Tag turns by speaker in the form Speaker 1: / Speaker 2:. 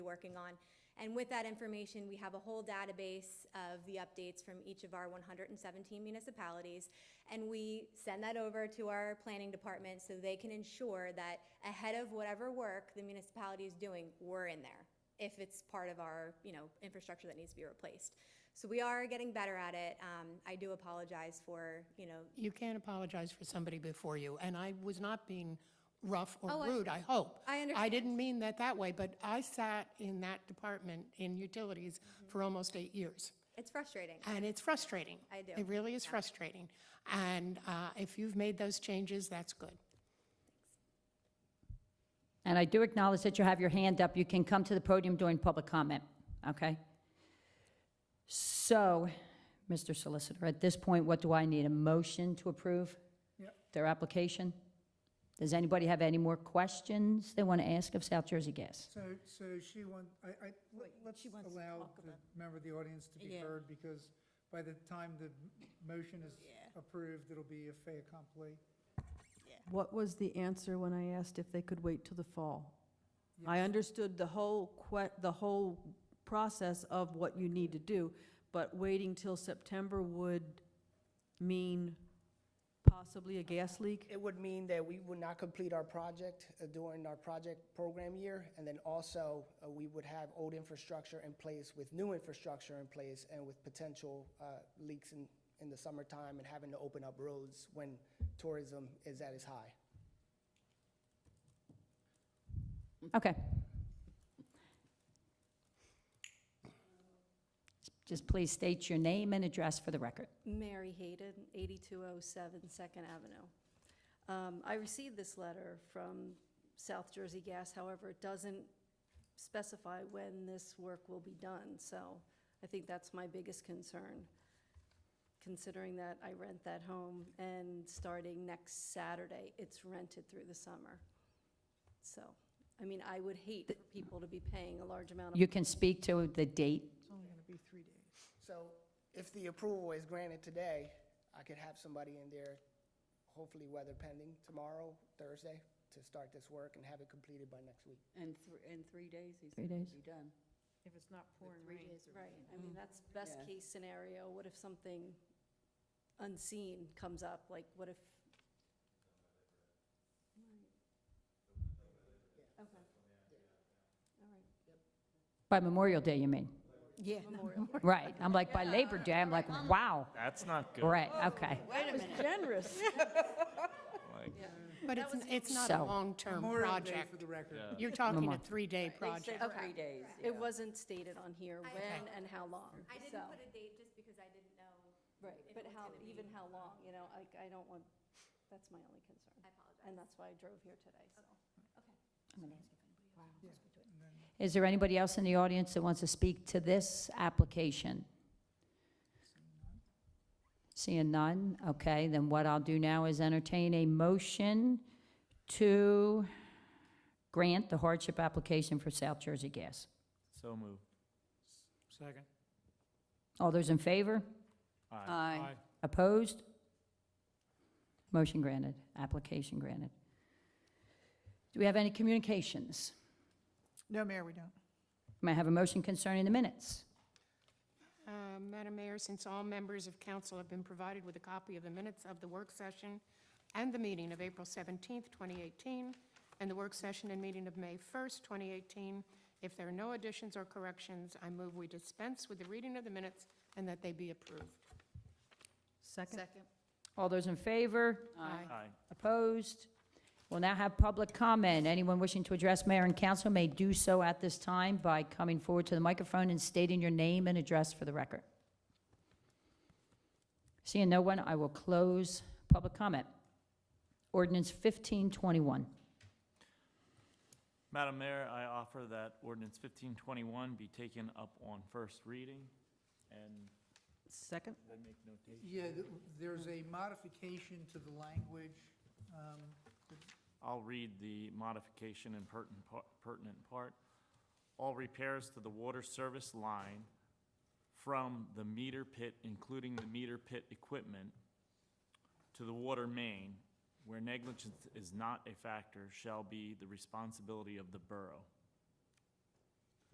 Speaker 1: working on. And with that information, we have a whole database of the updates from each of our 117 municipalities. And we send that over to our planning department so they can ensure that ahead of whatever work the municipality is doing, we're in there if it's part of our, you know, infrastructure that needs to be replaced. So we are getting better at it. Um, I do apologize for, you know,
Speaker 2: You can't apologize for somebody before you, and I was not being rough
Speaker 1: Oh,
Speaker 2: or
Speaker 1: I-
Speaker 2: rude, I hope.
Speaker 1: I
Speaker 2: I
Speaker 1: understand.
Speaker 2: didn't mean that that way, but I sat in that department in utilities
Speaker 1: Mm-hmm.
Speaker 2: for almost eight years,
Speaker 1: it's frustrating.
Speaker 2: and it's frustrating.
Speaker 1: I do,
Speaker 2: It really is frustrating. And uh, if you've made those changes, that's good.
Speaker 3: And I do acknowledge that you have your hand up. You can come to the podium during public comment, okay? So, Mr. Solicitor, at this point, what do I need? A motion to approve their application? Does anybody have any more questions they want to ask of South Jersey Gas?
Speaker 4: So, so she want, I, I, let- let's allow the member of the audience to be
Speaker 5: Yeah.
Speaker 4: heard, because by the time the m- motion is approved, it'll be a fait accompli.
Speaker 6: What was the answer when I asked if they could wait till the fall? I understood the whole que, the whole process of what you need to do, but waiting till September would mean possibly a gas leak?
Speaker 7: It would mean that we would not complete our project uh, during our project program year, and then also, uh, we would have old infrastructure in place with new infrastructure in place and with potential uh, leaks in, in the summertime and having to open up roads when tourism is at its high.
Speaker 3: Okay. Just please state your name and address for the record.
Speaker 5: Mary Hayden, 8207 Second Avenue. Um, I received this letter from South Jersey Gas, however, it doesn't specify when this work will be done, so I think that's my biggest concern, considering that I rent that home, and starting next Saturday, it's rented through the summer. So, I mean, I would hate for people to be paying a large amount of
Speaker 3: You can speak to the date
Speaker 7: So if the approval is granted today, I could have somebody in there, hopefully weather pending, tomorrow, Thursday, to start this work and have it completed by next week.
Speaker 8: And thr- in three days, he
Speaker 3: Three
Speaker 8: said it'd be
Speaker 3: days.
Speaker 8: done.
Speaker 6: If it's not pouring
Speaker 8: Three days or
Speaker 5: Right, I mean, that's best
Speaker 8: Yeah.
Speaker 5: case scenario, what if something unseen comes up, like what if? Okay. All
Speaker 3: by Memorial Day, you mean?
Speaker 8: Yeah.
Speaker 5: Memorial.
Speaker 3: Right, I'm like, by Labor Day, I'm like, wow,
Speaker 9: That's not good.
Speaker 3: right, okay.
Speaker 8: Wait a minute.
Speaker 6: Generous.
Speaker 9: Like,
Speaker 2: But it's, it's not a
Speaker 3: So-
Speaker 2: long-term
Speaker 4: Memorial Day
Speaker 2: project.
Speaker 4: For the record.
Speaker 9: yeah.
Speaker 2: You're talking a
Speaker 3: Memorial.
Speaker 2: three-day
Speaker 8: They
Speaker 2: project.
Speaker 8: said three days.
Speaker 5: right, it wasn't stated on here when and how long,
Speaker 1: I
Speaker 5: so,
Speaker 1: didn't put a date just because I didn't know.
Speaker 5: right,
Speaker 1: if it
Speaker 5: but
Speaker 1: was
Speaker 5: how,
Speaker 1: gonna
Speaker 5: even
Speaker 1: be-
Speaker 5: how long, you know, like, I don't want, that's my only concern.
Speaker 1: I apologize.
Speaker 5: And that's why I drove here today, so.
Speaker 3: Is there anybody else in the audience that wants to speak to this application? Seeing none, okay, then what I'll do now is entertain a motion to grant the hardship application for South Jersey Gas.
Speaker 9: So moved.
Speaker 4: Second.
Speaker 3: All those in favor?
Speaker 8: Aye.
Speaker 3: Opposed? Motion granted, application granted. Do we have any communications?
Speaker 10: No, Mayor, we don't.
Speaker 3: May I have a motion concerning the minutes?
Speaker 2: Uh, Madam Mayor, since all members of council have been provided with a copy of the minutes of the work session and the meeting of April 17th, 2018, and the work session and meeting of May 1st, 2018, if there are no additions or corrections, I move we dispense with the reading of the minutes and that they be approved.
Speaker 6: Second?
Speaker 8: Second.
Speaker 3: All those in favor?
Speaker 2: Aye.
Speaker 9: Aye.
Speaker 3: Opposed? We'll now have public comment. Anyone wishing to address mayor and council may do so at this time by coming forward to the microphone and stating your name and address for the record. Seeing no one, I will close public comment. Ordinance 1521.
Speaker 9: Madam Mayor, I offer that ordinance fifteen twenty-one be taken up on first reading and
Speaker 6: Second?
Speaker 9: they make notation.
Speaker 4: Yeah, th- there's a modification to the language, um,
Speaker 9: I'll read the modification and pertinent par- pertinent part. All repairs to the water service line from the meter pit, including the meter pit equipment, to the water main, where negligence is not a factor, shall be the responsibility of the borough.